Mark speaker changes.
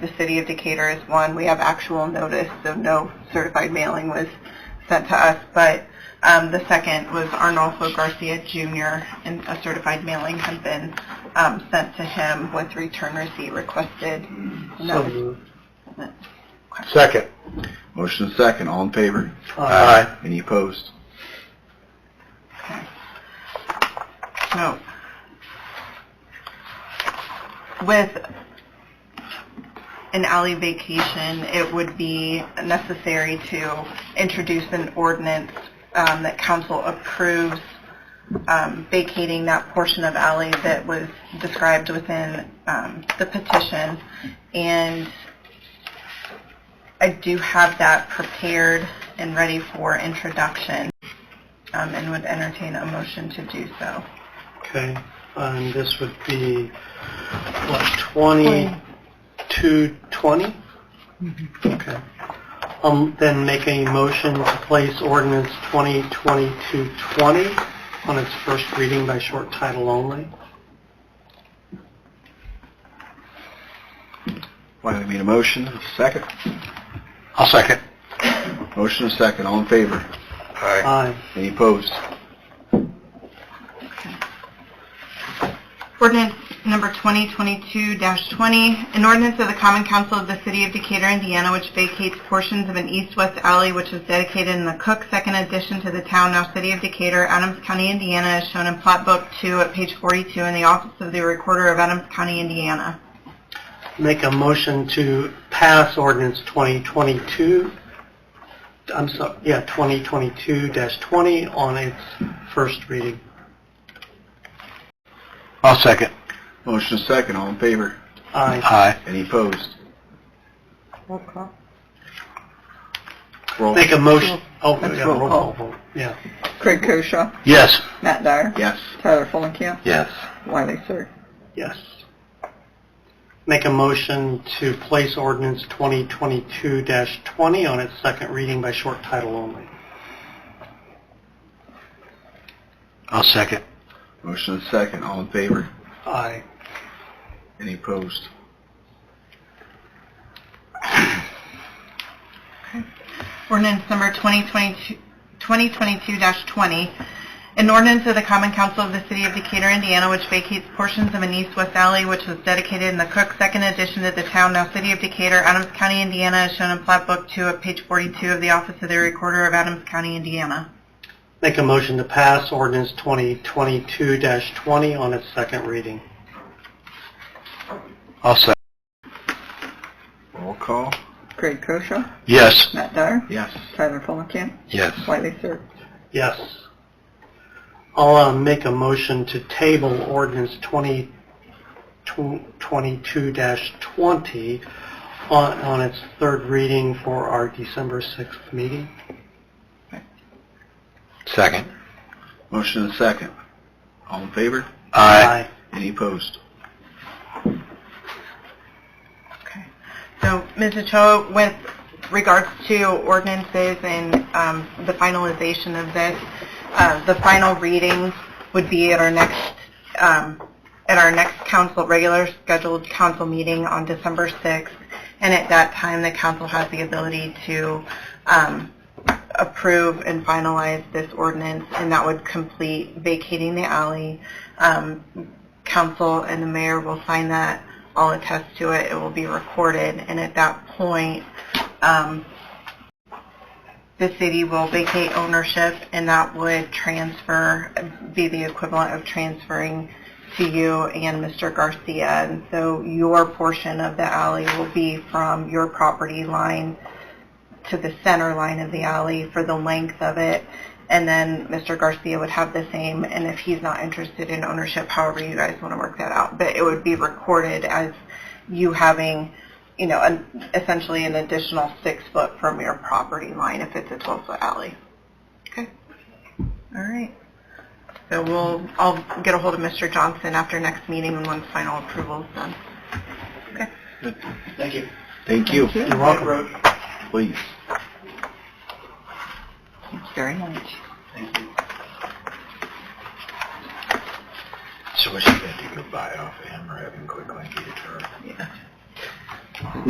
Speaker 1: The city of Decatur is one. We have actual notice, so no certified mailing was sent to us. But um, the second was Arnolfo Garcia Jr., and a certified mailing had been um, sent to him with return receipt requested. And that was-
Speaker 2: Second.
Speaker 3: Motion is second, all in favor?
Speaker 2: Aye.
Speaker 3: Any opposed?
Speaker 1: So, with an alley vacation, it would be necessary to introduce an ordinance um, that council approves um, vacating that portion of alley that was described within um, the petition. And I do have that prepared and ready for introduction um, and would entertain a motion to do so.
Speaker 2: Okay, and this would be, what, 2220? Okay. Um, then make a motion to place ordinance 202220 on its first reading by short title only.
Speaker 3: Wiley made a motion, second.
Speaker 2: I'll second.
Speaker 3: Motion is second, all in favor?
Speaker 2: Aye.
Speaker 3: Any opposed?
Speaker 1: Ordinance number 2022-20, an ordinance of the Common Council of the City of Decatur, Indiana, which vacates portions of an east-west alley which was dedicated in the Cook Second Addition to the town, now City of Decatur, Adams County, Indiana, as shown in Plot Book 2 at page 42 in the Office of the Recorder of Adams County, Indiana.
Speaker 2: Make a motion to pass ordinance 2022, I'm sorry, yeah, 2022-20 on its first reading.
Speaker 4: I'll second.
Speaker 3: Motion is second, all in favor?
Speaker 2: Aye.
Speaker 4: Aye.
Speaker 3: Any opposed? Roll.
Speaker 2: Make a motion, oh,
Speaker 5: That's
Speaker 2: yeah,
Speaker 5: roll
Speaker 2: roll
Speaker 5: call.
Speaker 2: call vote, yeah.
Speaker 5: Craig Koshaw,
Speaker 4: Yes.
Speaker 5: Matt Dyer,
Speaker 3: Yes.
Speaker 5: Tyler Fulenkamp,
Speaker 4: Yes.
Speaker 5: Wiley Sir.
Speaker 2: Yes. Make a motion to place ordinance 2022-20 on its second reading by short title only.
Speaker 4: I'll second.
Speaker 3: Motion is second, all in favor?
Speaker 2: Aye.
Speaker 3: Any opposed?
Speaker 1: Ordinance number 2022 2022-20, an ordinance of the Common Council of the City of Decatur, Indiana, which vacates portions of an east-west alley which was dedicated in the Cook Second Addition to the town, now City of Decatur, Adams County, Indiana, as shown in Plat Book 2 at page 42 of the Office of the Recorder of Adams County, Indiana.
Speaker 2: Make a motion to pass ordinance 2022-20 on its second reading.
Speaker 4: I'll second.
Speaker 3: Roll call.
Speaker 5: Craig Koshaw,
Speaker 4: Yes.
Speaker 5: Matt Dyer,
Speaker 3: Yes.
Speaker 5: Tyler Fulenkamp,
Speaker 4: Yes.
Speaker 5: Wiley Sir.
Speaker 2: Yes. I'll uh, make a motion to table ordinance 2022-20 on on its third reading for our December 6th meeting.
Speaker 4: Second.
Speaker 3: Motion is second, all in favor?
Speaker 4: Aye.
Speaker 3: Any opposed?
Speaker 1: So, Ms. Ochoa, with regards to ordinances and um, the finalization of this, uh, the final reading would be at our next, um, at our next council, regular scheduled council meeting on December 6th. And at that time, the council has the ability to um, approve and finalize this ordinance, and that would complete vacating the alley. Um, Council and the mayor will sign that I'll attest to it, it will be recorded, and at that point, um, the city will vacate ownership, and that would transfer, be the equivalent of transferring to you and Mr. Garcia. And so your portion of the alley will be from your property line to the center line of the alley for the length of it. And then Mr. Garcia would have the same, and if he's not interested in ownership, however you guys want to work that out. But it would be recorded as you having, you know, an- essentially an additional six foot from your property line if it's a 12 foot alley. Okay. All right. So we'll, I'll get a hold of Mr. Johnson after next meeting and once final approval is done.
Speaker 3: Thank you. Thank you.
Speaker 2: You're welcome.
Speaker 3: Please.
Speaker 1: Thank you very much.
Speaker 3: So was she going to do goodbye off him or have him quickly get her?